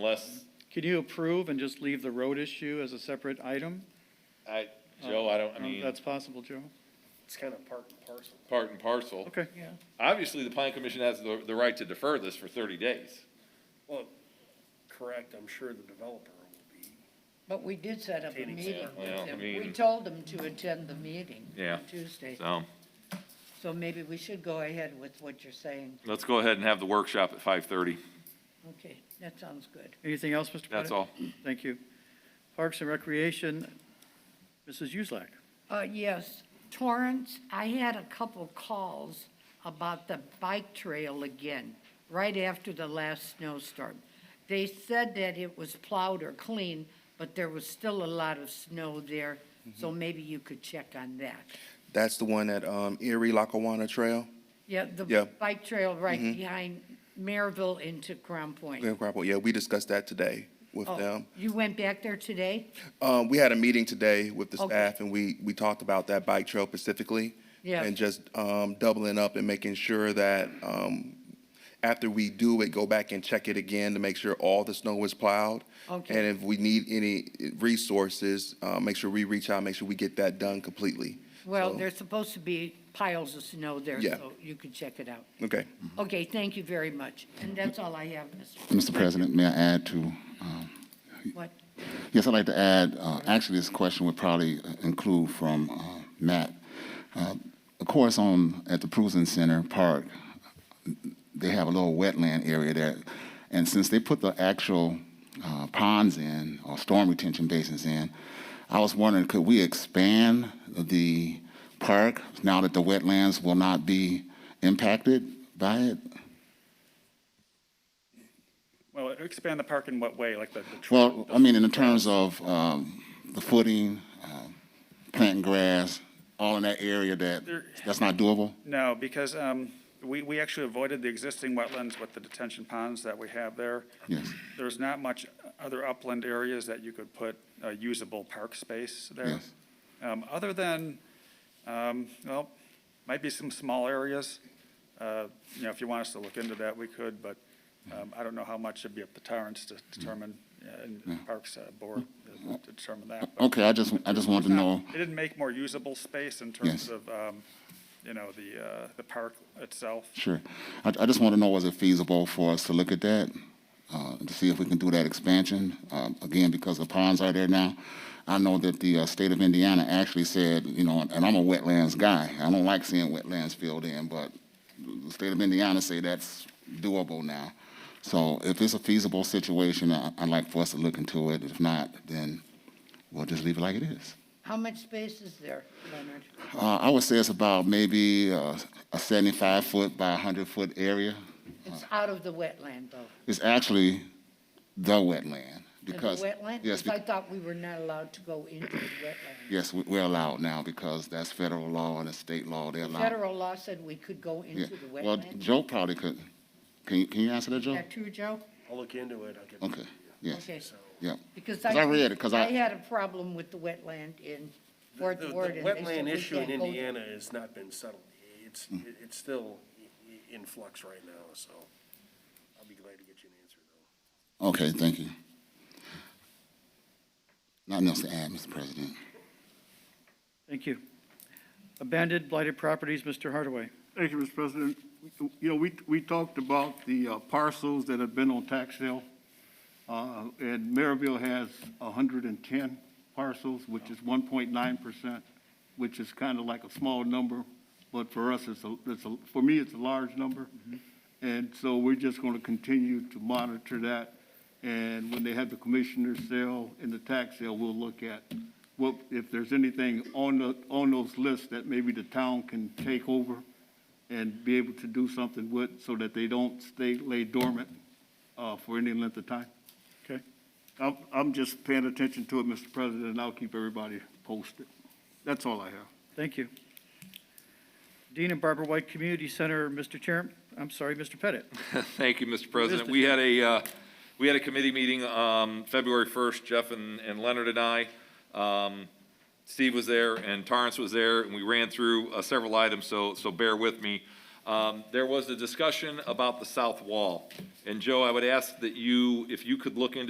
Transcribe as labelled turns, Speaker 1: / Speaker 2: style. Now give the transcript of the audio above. Speaker 1: unless,
Speaker 2: Could you approve and just leave the road issue as a separate item?
Speaker 1: I, Joe, I don't, I
Speaker 2: Uh,
Speaker 1: mean,
Speaker 2: That's possible, Joe?
Speaker 3: It's kind of part and parcel.
Speaker 1: part and parcel.
Speaker 2: Okay.
Speaker 1: Obviously, the planning commission has the, the right to defer this for thirty days.
Speaker 3: Well, correct, I'm sure the developer will be.
Speaker 4: But we did set up a
Speaker 3: Attending.
Speaker 4: meeting with
Speaker 1: Yeah, well, I
Speaker 4: them. We
Speaker 1: mean-
Speaker 4: told them to attend the meeting
Speaker 1: Yeah.
Speaker 4: on Tuesday.
Speaker 1: So,
Speaker 4: So maybe we should go ahead with what you're saying.
Speaker 1: let's go ahead and have the workshop at five thirty.
Speaker 4: Okay, that sounds good.
Speaker 2: Anything else, Mr. Pettit?
Speaker 1: That's all.
Speaker 2: Thank you. Parks and Recreation, Mrs. Uselak.
Speaker 4: Uh, yes, Torrance, I had a couple calls about the bike trail again, right after the last snowstorm. They said that it was plowed or clean, but there was still a lot of snow there, so maybe you could check on that.
Speaker 5: That's the one at um, Erie Lackawanna Trail,
Speaker 4: Yeah,
Speaker 5: Yeah.
Speaker 4: the bike trail right
Speaker 1: Mm-hmm.
Speaker 4: behind Maryville into Crown Point.
Speaker 5: Glen Cropper. Yeah, we discussed that today with
Speaker 4: Oh,
Speaker 5: them.
Speaker 4: You went back there today?
Speaker 5: Um, we had a meeting today with the
Speaker 4: Okay.
Speaker 5: staff, and we, we talked about that bike trail specifically.
Speaker 4: Yeah.
Speaker 5: And just um, doubling up and making sure that um, after we do it, go back and check it again to make sure all the snow is plowed.
Speaker 4: Okay.
Speaker 5: And if we need any resources, uh, make sure we reach out, make sure we get that done completely.
Speaker 4: Well,
Speaker 5: So-
Speaker 4: there's supposed to be piles of snow there,
Speaker 5: Yeah.
Speaker 4: so you could check it out.
Speaker 5: Okay.
Speaker 4: Okay, thank you very much. And that's all I have, Mr.
Speaker 6: Mr. President, may I add to, um,
Speaker 4: What?
Speaker 6: yes, I'd like to add, uh, actually, this question would probably include from uh, Matt. Uh, Of course, on, at the Prusen Center Park, they have a little wetland area there. And since they put the actual uh, ponds in, or storm retention basins in, I was wondering, could we expand the park now that the wetlands will not be impacted by it?
Speaker 7: Well, expand the park in what way, like the, the
Speaker 6: Well,
Speaker 7: trail?
Speaker 6: I mean, in terms of um, the footing, um, planting grass, all in that area that,
Speaker 7: There-
Speaker 6: that's not doable?
Speaker 7: No, because, um, we, we actually avoided the existing wetlands with the detention ponds that we have there.
Speaker 6: Yes.
Speaker 7: There's not much other upland areas that you could put uh, usable park space there.
Speaker 6: Yes.
Speaker 7: Um, other than, um, well, might be some small areas. Uh, you know, if you want us to look into that, we could, but, um, I don't know how much it'd be up to Torrance to determine, uh, and Parks uh, Board to determine that. but-
Speaker 6: Okay, I just, I just wanted to know,
Speaker 7: It didn't make more usable space in terms
Speaker 6: Yes.
Speaker 7: of, um, you know, the, uh, the park itself.
Speaker 6: sure. I, I just want to know, was it feasible for us to look at that? uh, To see if we can do that expansion, um, again, because the ponds are there now. I know that the uh, state of Indiana actually said, you know, and I'm a wetlands guy. I don't like seeing wetlands filled in, but the state of Indiana say that's doable now. So if it's a feasible situation, I- I'd like for us to look into it. If not, then we'll just leave it like it is.
Speaker 4: How much space is there, Leonard?
Speaker 6: Uh, I would say it's about maybe uh, a 75-foot by 100-foot area.
Speaker 4: It's out of the wetland, though.
Speaker 6: It's actually the wetland
Speaker 4: Is it
Speaker 6: because.
Speaker 4: wetland?
Speaker 6: Yes,
Speaker 4: Because I
Speaker 6: be-
Speaker 4: thought we were not allowed to go into the wetland.
Speaker 6: yes, we- we're allowed now because that's federal law and it's state law. They're allowed.
Speaker 4: Federal law said we could go
Speaker 6: Yeah.
Speaker 4: into the
Speaker 6: Well,
Speaker 4: wetland.
Speaker 6: Joe probably could. Can you, can you answer that,
Speaker 4: Is
Speaker 6: Joe?
Speaker 4: that true, Joe?
Speaker 3: I'll look into it, I'll get. back to
Speaker 6: Okay,
Speaker 3: you.
Speaker 6: yes,
Speaker 4: Okay.
Speaker 6: yeah.
Speaker 4: Because
Speaker 6: 'Cause I read it, 'cause I-
Speaker 4: I had a problem with the wetland in Fort
Speaker 3: The- the-
Speaker 4: Ward. and
Speaker 3: The
Speaker 4: they said
Speaker 3: wetland
Speaker 4: we
Speaker 3: issue in
Speaker 4: can't go
Speaker 3: Indiana has not been settled. It's, it's still in flux right now, so I'll be glad to get you an answer, though.
Speaker 6: Okay, thank you. Nothing else to add, Mr. President.
Speaker 2: Thank you. Abandoned blighted properties, Mr. Hardaway.
Speaker 8: Thank you, Mr. President. You know, we, we talked about the uh, parcels that have been on tax sale. Uh, And Maryville has 110 parcels, which is 1.9%, which is kind of like a small number, but for us, it's a, it's a, for me, it's a large number. And so we're just going to continue to monitor that. And when they have the commissioner's sale and the tax sale, we'll look at what, if there's anything on the, on those lists that maybe the town can take over and be able to do something with, so that they don't stay, lay dormant uh, for any length of time. Okay? I'm, I'm just paying attention to it, Mr. President, and I'll keep everybody posted. That's all I have.
Speaker 2: Thank you. Dean and Barbara White Community Center, Mr. Chair, I'm sorry, Mr. Pettit.
Speaker 1: Thank you, Mr. President. We had a, uh, we had a committee meeting, um, February 1st, Jeff and and Leonard and I. Um, Steve was there and Torrance was there, and we ran through uh, several items, so, so bear with me. Um, There was a discussion about the south wall, and Joe, I would ask that you, if you could look into